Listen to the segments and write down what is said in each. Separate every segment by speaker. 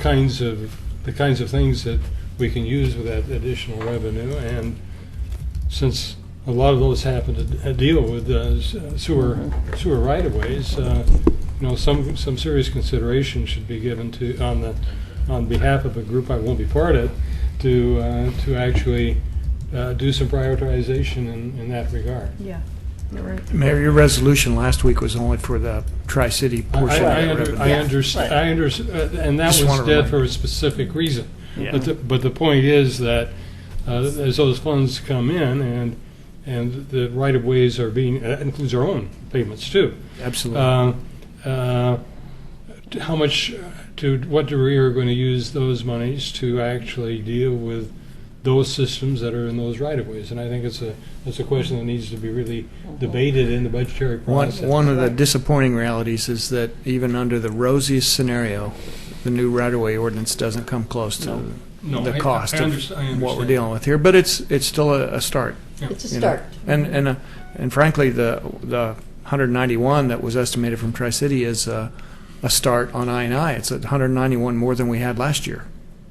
Speaker 1: kinds of, the kinds of things that we can use with that additional revenue. And since a lot of those happen to d- deal with uh, sewer, sewer right-of-ways, uh, you know, some, some serious consideration should be given to, on the, on behalf of a group I won't be part of, to, uh, to actually uh, do some prioritization in, in that regard.
Speaker 2: Yeah, you're right.
Speaker 3: Mayor, your resolution last week was only for the Tri-City
Speaker 1: I,
Speaker 3: portion of
Speaker 1: I,
Speaker 3: that
Speaker 1: under- I
Speaker 3: revenue.
Speaker 1: understand, I understand, and that
Speaker 3: Just
Speaker 1: was
Speaker 3: wanna
Speaker 1: dead
Speaker 3: remind-
Speaker 1: for a specific reason.
Speaker 3: Yeah.
Speaker 1: But the, but the point is that, uh, as those funds come in and, and the right-of-ways are being, uh, that includes our own payments too.
Speaker 3: Absolutely.
Speaker 1: Uh, uh, t- How much, to what degree are going to use those monies to actually deal with those systems that are in those right-of-ways? And I think it's a, it's a question that needs to be really debated in the budgetary
Speaker 3: One,
Speaker 1: process.
Speaker 3: one of the disappointing realities is that even under the rosiest scenario, the new right-of-way ordinance doesn't come close to
Speaker 1: No, I-
Speaker 3: the
Speaker 1: I-
Speaker 3: cost
Speaker 1: I underst- I
Speaker 3: of what we're
Speaker 1: understand.
Speaker 3: dealing with here. But it's, it's still a, a start.
Speaker 2: It's a
Speaker 3: you know.
Speaker 2: start.
Speaker 3: And, and, uh, and frankly, the, the 191 that was estimated from Tri-City is uh, a start on I and I. It's at 191 more than we had last year.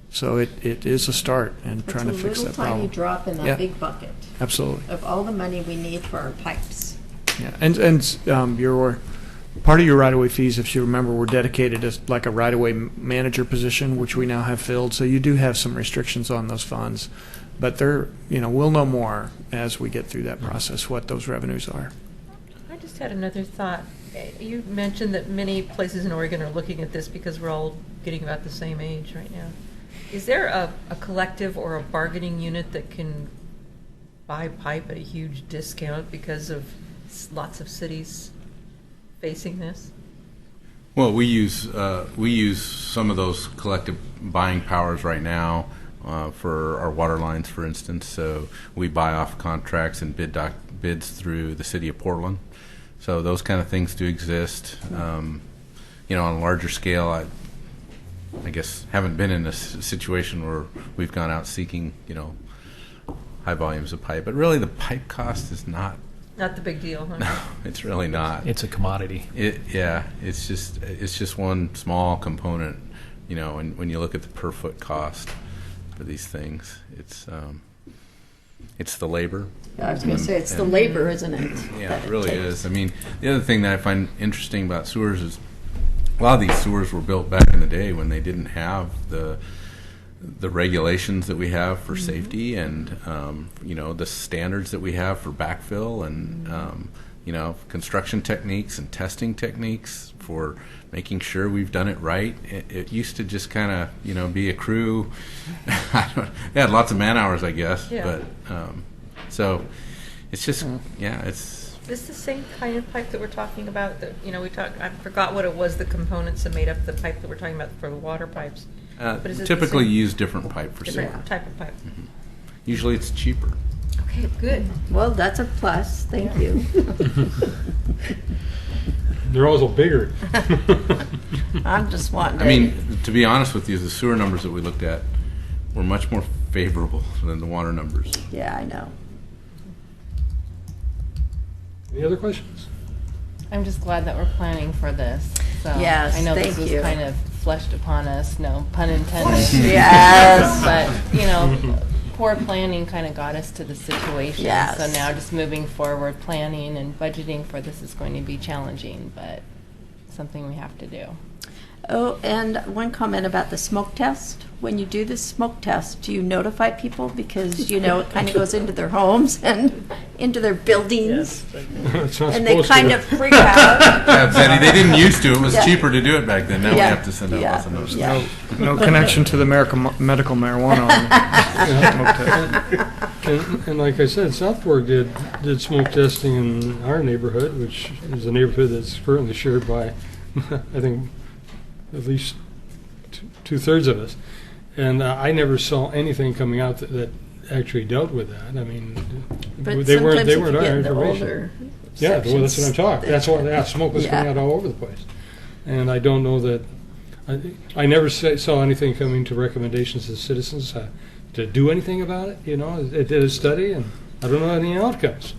Speaker 3: So it, it is a start and trying to fix that
Speaker 2: It's a little tiny
Speaker 3: problem.
Speaker 2: drop in
Speaker 3: Yeah.
Speaker 2: that big bucket
Speaker 3: Absolutely.
Speaker 2: of all the money we need for our pipes.
Speaker 3: Yeah, and, and um, your, part of your right-of-way fees, if you remember, were dedicated as like a right-of-way manager position, which we now have filled, so you do have some restrictions on those funds. But they're, you know, we'll know more as we get through that process, what those revenues are.
Speaker 4: I just had another thought. Eh, You mentioned that many places in Oregon are looking at this because we're all getting about the same age right now. Is there a, a collective or a bargaining unit that can buy pipe at a huge discount because of s- lots of cities facing this?
Speaker 5: Well, we use, uh, we use some of those collective buying powers right now uh, for our water lines, for instance. So we buy off contracts and bid doc, bids through the city of Portland. So those kind of things do exist. Um, You know, on a larger scale, I, I guess, haven't been in a s- situation where we've gone out seeking, you know, high volumes of pipe. But really, the pipe cost is not,
Speaker 4: Not the big deal, huh?
Speaker 5: it's really not.
Speaker 6: It's a commodity.
Speaker 5: It, yeah, it's just it's just one small component, you know. And when you look at the per foot cost for these things, it's um, it's the labor.
Speaker 2: I was going to say, it's the
Speaker 5: And-
Speaker 2: labor, isn't it?
Speaker 5: Yeah,
Speaker 2: that
Speaker 5: it really
Speaker 2: takes?
Speaker 5: is. I mean, the other thing that I find interesting about sewers is a lot of these sewers were built back in the day when they didn't have the the regulations that we have for
Speaker 4: Mm-hmm.
Speaker 5: safety and um, you know the standards that we have for backfill
Speaker 4: Mm-hmm.
Speaker 5: and um, you know construction techniques and testing techniques for making sure we've done it right. It, it used to just kind of you know be a crew. I don't, they had lots of man hours, I guess,
Speaker 4: Yeah. Mm.
Speaker 5: but um, so it's just yeah, it's
Speaker 4: Is this the same kind of pipe that we're talking about that, you know, we talked, I forgot what it was, the components that made up the pipe that we're talking about for the water pipes.
Speaker 5: Uh,
Speaker 4: But is it the
Speaker 5: Typically
Speaker 4: same-
Speaker 5: use different pipe for sewer.
Speaker 4: Different type of pipe.
Speaker 5: Usually it's cheaper.
Speaker 4: Okay, good.
Speaker 2: Well, that's a plus, thank you.
Speaker 1: They're also bigger.
Speaker 2: I'm just wanting to.
Speaker 5: I mean, to be honest with you, the sewer numbers that we looked at were much more favorable than the water numbers.
Speaker 2: Yeah, I know.
Speaker 1: Any other questions?
Speaker 7: I'm just glad that we're planning for this. So
Speaker 2: Yes,
Speaker 7: I know
Speaker 2: thank
Speaker 7: this was
Speaker 2: you.
Speaker 7: kind of fleshed upon us, no pun intended.
Speaker 2: Yes.
Speaker 7: but you know, poor planning kind of got us to the situation.
Speaker 2: Yes.
Speaker 7: So now just moving forward, planning and budgeting for this is going to be challenging, but something we have to do.
Speaker 2: Oh, and one comment about the smoke test. When you do the smoke test, do you notify people? Because, you know, it kind of goes into their homes and into their buildings.
Speaker 1: It's not
Speaker 2: And they
Speaker 1: supposed to.
Speaker 2: kind of freak out.
Speaker 5: Yeah, Betty, they didn't used to. It was
Speaker 2: Yeah.
Speaker 5: cheaper to do it back then. Now we
Speaker 2: Yeah.
Speaker 5: have to send out
Speaker 2: Yeah.
Speaker 5: lots of notices.
Speaker 2: Yeah.
Speaker 3: No connection to the American medical marijuana.
Speaker 1: And, and like I said, Southport did, did smoke testing in our neighborhood, which is a neighborhood that's currently shared by, I think, at least two- two-thirds of us. And uh, I never saw anything coming out that, that actually dealt with that. I mean,
Speaker 2: But
Speaker 1: they weren't,
Speaker 2: sometimes
Speaker 1: they
Speaker 2: if you
Speaker 1: weren't
Speaker 2: get
Speaker 1: our
Speaker 2: in the
Speaker 1: information.
Speaker 2: older
Speaker 1: Yeah, well, that's what I'm
Speaker 2: sections,
Speaker 1: talking,
Speaker 2: they-
Speaker 1: that's what, yeah, smoke was coming
Speaker 2: Yeah.
Speaker 1: out all over the place. And I don't know that, I, I never sa- saw anything coming to recommendations to citizens uh, to do anything about it, you know, it did a study, and I don't know any outcomes.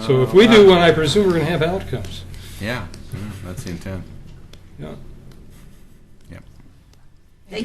Speaker 1: So if we do one, I presume we're gonna have outcomes,
Speaker 5: Yeah, yeah, Uh, that's the intent.
Speaker 1: you know?